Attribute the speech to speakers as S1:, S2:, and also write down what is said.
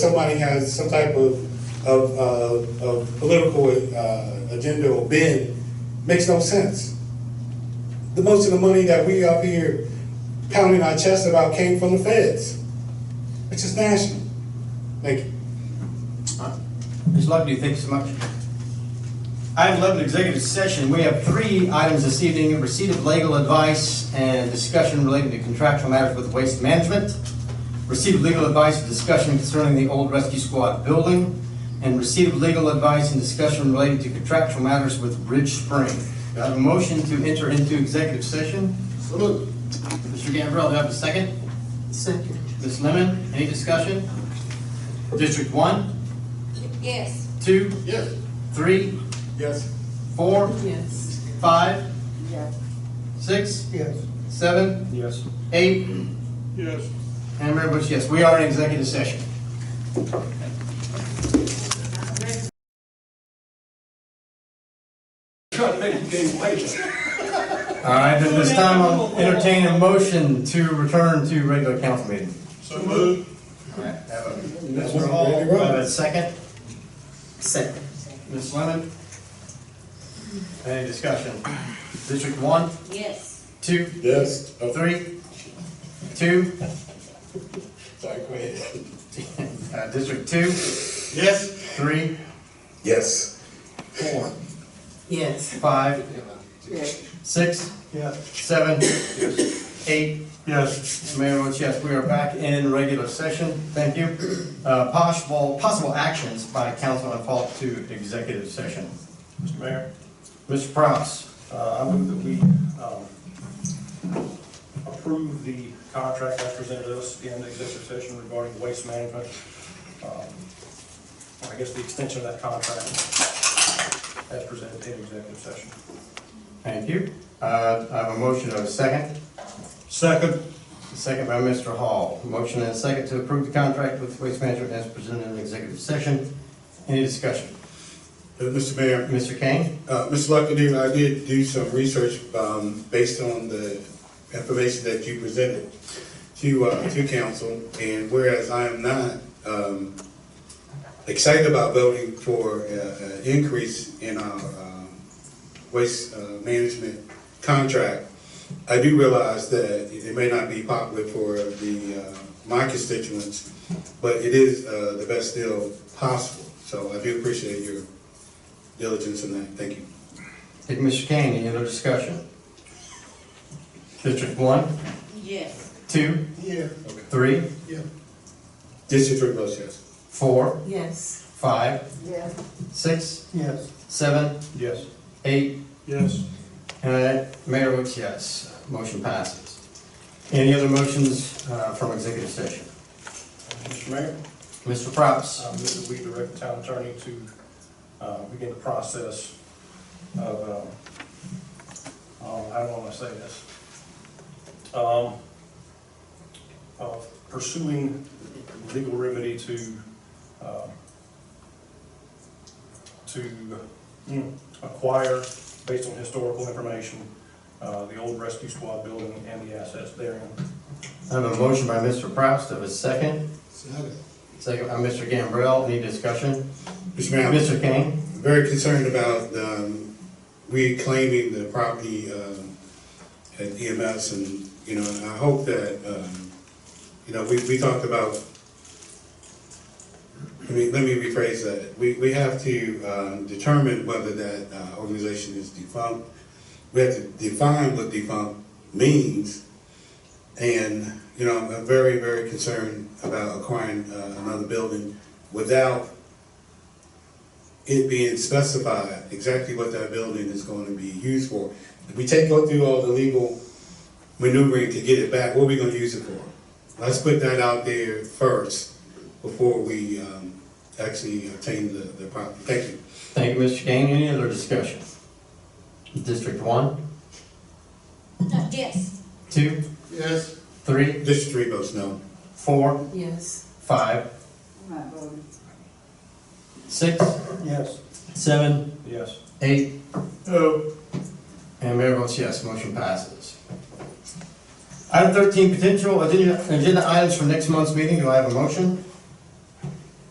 S1: somebody has some type of, of, uh, of political, uh, agenda or bend, makes no sense. The most of the money that we up here pounding our chest about came from the feds, which is national. Thank you.
S2: Ms. Lugby, thank you so much. Item 11, executive session. We have three items this evening. Receipt of legal advice and discussion relating to contractual matters with waste management. Receipt of legal advice and discussion concerning the old rescue squad building. And receipt of legal advice and discussion relating to contractual matters with Ridge Spring. Do I have a motion to enter into executive session? Mr. Gambrell, do I have a second?
S3: Second.
S2: Ms. Lemon, any discussion? District 1,
S4: Yes.
S2: 2,
S1: Yes.
S2: 3,
S1: Yes.
S2: 4,
S3: Yes.
S2: Five,
S3: Yes.
S2: six,
S3: Yes.
S2: seven,
S5: Yes.
S2: eight,
S1: Yes.
S2: and Mayor Bush, yes, we are in executive session. All right, at this time, I'll entertain a motion to return to regular council meeting.
S5: So moved.
S2: All right, have a, Mr. Hall, have a second.
S3: Second.
S2: Ms. Lemon? Any discussion? District one,
S4: Yes.
S2: two,
S1: Yes. Oh,
S2: three, two,
S1: sorry, go ahead.
S2: uh, District two,
S5: Yes.
S2: three,
S1: Yes.
S2: four,
S3: Yes.
S2: five,
S3: Yes.
S2: six,
S5: Yes.
S2: seven, eight,
S5: Yes.
S2: Mayor votes yes, we are back in regular session, thank you. Uh, Possible, possible actions by council on fault to executive session.
S5: Mr. Mayor,
S2: Mr. Prowse,
S5: uh, I move that we um, approve the contract that presented us in the executive session regarding waste management. Um, I guess the extension of that contract as presented in executive session.
S2: thank you. Uh, I have a motion of a second,
S5: Second.
S2: second by Mr. Hall. Motion and a second to approve the contract with Waste Management as presented in the executive session. Any discussion?
S1: Mr. Uh, Mayor.
S2: Mr. Kane?
S1: Uh, Ms. Luckady, I did do some research, um, based on the information that you presented to, uh, to council, and whereas I am not, um, excited about voting for, uh, an increase in our, um, waste, uh, management contract, I do realize that it may not be popular for the, uh, my constituents, but it is, uh, the best deal possible, so I do appreciate your diligence in that, thank you.
S2: Take Mr. Kane, any other discussion? District one,
S4: Yes.
S2: two,
S1: Yeah.
S2: three,
S1: District three votes yes.
S2: four,
S3: Yes.
S2: five,
S3: Yes.
S2: six,
S5: Yes.
S2: seven,
S5: Yes.
S2: eight,
S5: Yes.
S2: uh, Mayor votes yes. Motion passes. Any other motions uh, from executive session?
S5: Mr. Mayor?
S2: Mr. Props,
S5: I move that Um, we direct the town attorney to uh, begin the process of, um, um, how do I want to say this? Um, Of pursuing legal remedy to, um, to mm, acquire, based on historical information, uh, the old rescue squad building and the assets therein.
S2: I have a motion by Mr. Props, do I have a second? Second by Mr. Gambrell, any discussion?
S1: Mr. Mayor, I'm
S2: Mr. Kane?
S1: very concerned about, um, reclaiming the property, um, at EMS and, you know, and I hope that, um, you know, we, we talked about, I mean, let me rephrase that. We, we have to, um, determine whether that, uh, organization is defunct. We have to define what defunct means. And, you know, I'm very, very concerned about acquiring, uh, another building without it being specified exactly what that building is going to be used for. If we take, go through all the legal maneuvering to get it back, what are we gonna use it for? Let's put that out there first, before we, um, actually obtain the, the property. Thank you.
S2: Thank you, Mr. Kane, any other discussion? District one,
S4: No, yes.
S2: two,
S1: Yes.
S2: three,
S1: District three votes no.
S2: four,
S3: Yes.
S2: five, six,
S5: Yes.
S2: seven,
S5: Yes.
S2: eight, And Mayor votes yes, motion passes. Item thirteen, potential agenda agenda items for next month's meeting, do I have a motion?